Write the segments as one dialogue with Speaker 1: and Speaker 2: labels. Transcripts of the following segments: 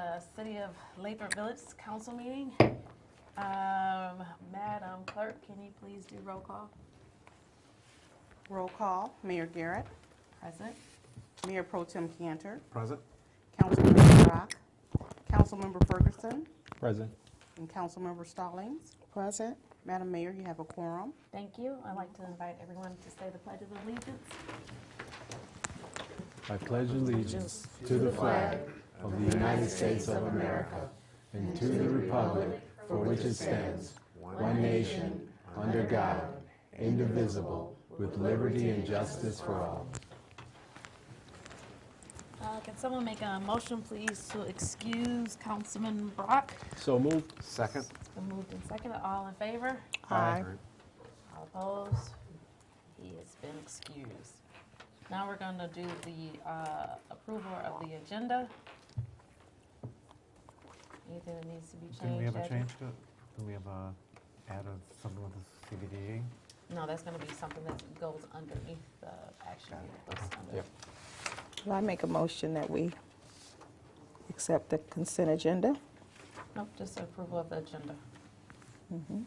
Speaker 1: of Lathrop Village Council meeting. Um, Madam Clerk, can you please do roll call?
Speaker 2: Roll call, Mayor Garrett,
Speaker 1: Present.
Speaker 2: Mayor Pro Tem Cantor,
Speaker 3: Present.
Speaker 2: Councilmember Rock, Councilmember Ferguson,
Speaker 4: Present.
Speaker 2: and Councilmember Stallings.
Speaker 5: Present.
Speaker 2: Madam Mayor, you have a quorum.
Speaker 1: Thank you. I'd like to invite everyone to say the Pledge of Allegiance.
Speaker 4: I pledge allegiance to the flag of the United States of America and to the republic for which it stands, one nation, under God, indivisible, with liberty and justice for all.
Speaker 1: Uh, can someone make a motion, please, to excuse Councilman Brock?
Speaker 4: So moved.
Speaker 3: Second.
Speaker 1: It's been moved and seconded. All in favor?
Speaker 5: Aye.
Speaker 1: All opposed? He has been excused. Now we're going to do the uh, approval of the agenda. Anything that needs to be changed?
Speaker 3: Didn't we have a
Speaker 1: Edgar?
Speaker 3: change to, did we have a add of something with the CBDA?
Speaker 1: No, that's going to be something that goes underneath the action. that goes under.
Speaker 4: Yep.
Speaker 5: Well, I make a motion that we accept the consent agenda.
Speaker 1: Nope, just approval of the agenda.
Speaker 5: Mm-hmm.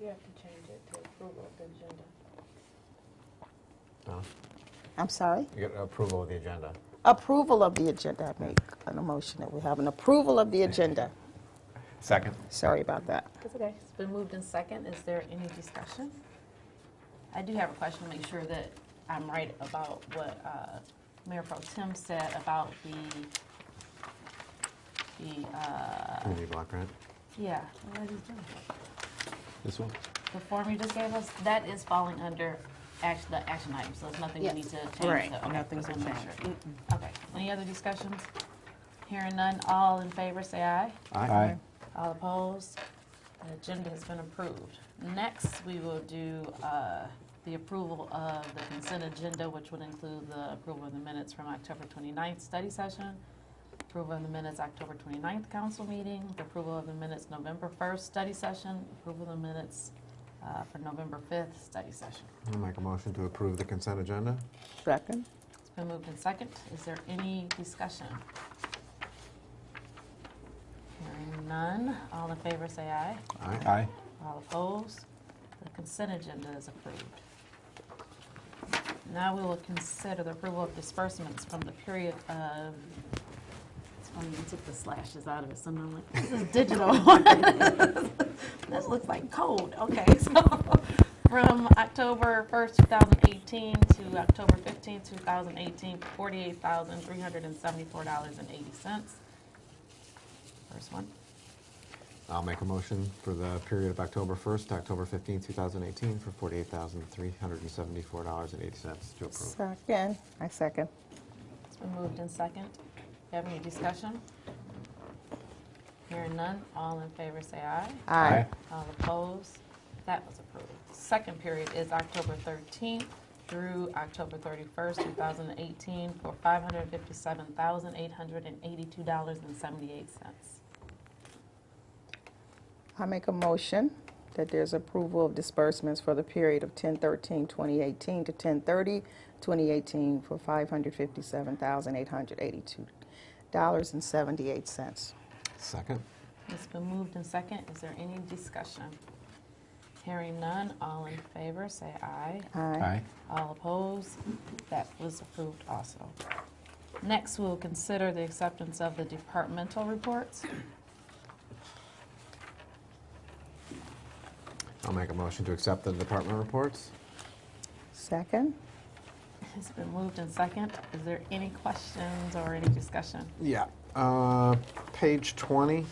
Speaker 1: You have to change it to approval of the agenda.
Speaker 5: I'm sorry.
Speaker 4: You get approval of the agenda.
Speaker 5: Approval of the agenda. I make an emotion that we have an approval of the agenda.
Speaker 4: Second.
Speaker 5: Sorry about that.
Speaker 1: It's okay. It's been moved in second. Is there any discussion? I do have a question to make sure that I'm right about what uh, Mayor Pro Tim said about the, the, uh,
Speaker 3: Community block grant.
Speaker 1: yeah, what is he doing?
Speaker 4: This one?
Speaker 1: the form you just gave us, that is falling under action, the action item, so there's nothing we need to change.
Speaker 2: Right,
Speaker 1: so- okay,
Speaker 2: nothing's
Speaker 1: just wanna make
Speaker 2: changed.
Speaker 1: sure. Okay, any other discussions? Hearing none, all in favor, say aye.
Speaker 4: Aye.
Speaker 1: All opposed? The agenda has been approved. Next, we will do uh, the approval of the consent agenda, which would include the approval of the minutes from October 29th study session, approval of the minutes October 29th council meeting, the approval of the minutes November 1st study session, approval of the minutes uh, for November 5th study session.
Speaker 3: I'll make a motion to approve the consent agenda.
Speaker 5: Second.
Speaker 1: It's been moved in second. Is there any discussion? Hearing none. All in favor, say aye.
Speaker 4: Aye.
Speaker 1: All opposed? The consent agenda is approved. Now we will consider the approval of disbursements from the period of, it's funny, you took the slashes out of it, so now I'm like, this is digital. This looks like code, okay, so, from October 1st, 2018 to October 15th, 2018, $48,374.80. First one.
Speaker 3: I'll make a motion for the period of October 1st to October 15th, 2018 for $48,374.80 to approve.
Speaker 5: Second. I second.
Speaker 1: It's been moved in second. Do you have any discussion? Hearing none, all in favor say aye.
Speaker 5: Aye.
Speaker 1: All opposed? That was approved. Second period is October 13th through October 31st, 2018, for $557,882.78.
Speaker 5: I make a motion that there's approval of disbursements for the period of 10/13/2018 to 10/30/2018 for $557,882.78.
Speaker 3: Second.
Speaker 1: It's been moved in second. Is there any discussion? Hearing none, all in favor say aye.
Speaker 5: Aye.
Speaker 1: All opposed? That was approved also. Next, we'll consider the acceptance of the departmental reports.
Speaker 3: I'll make a motion to accept the department reports.
Speaker 5: Second.
Speaker 1: It's been moved in second. Is there any questions or any discussion?
Speaker 3: Yeah. Uh, Page 20,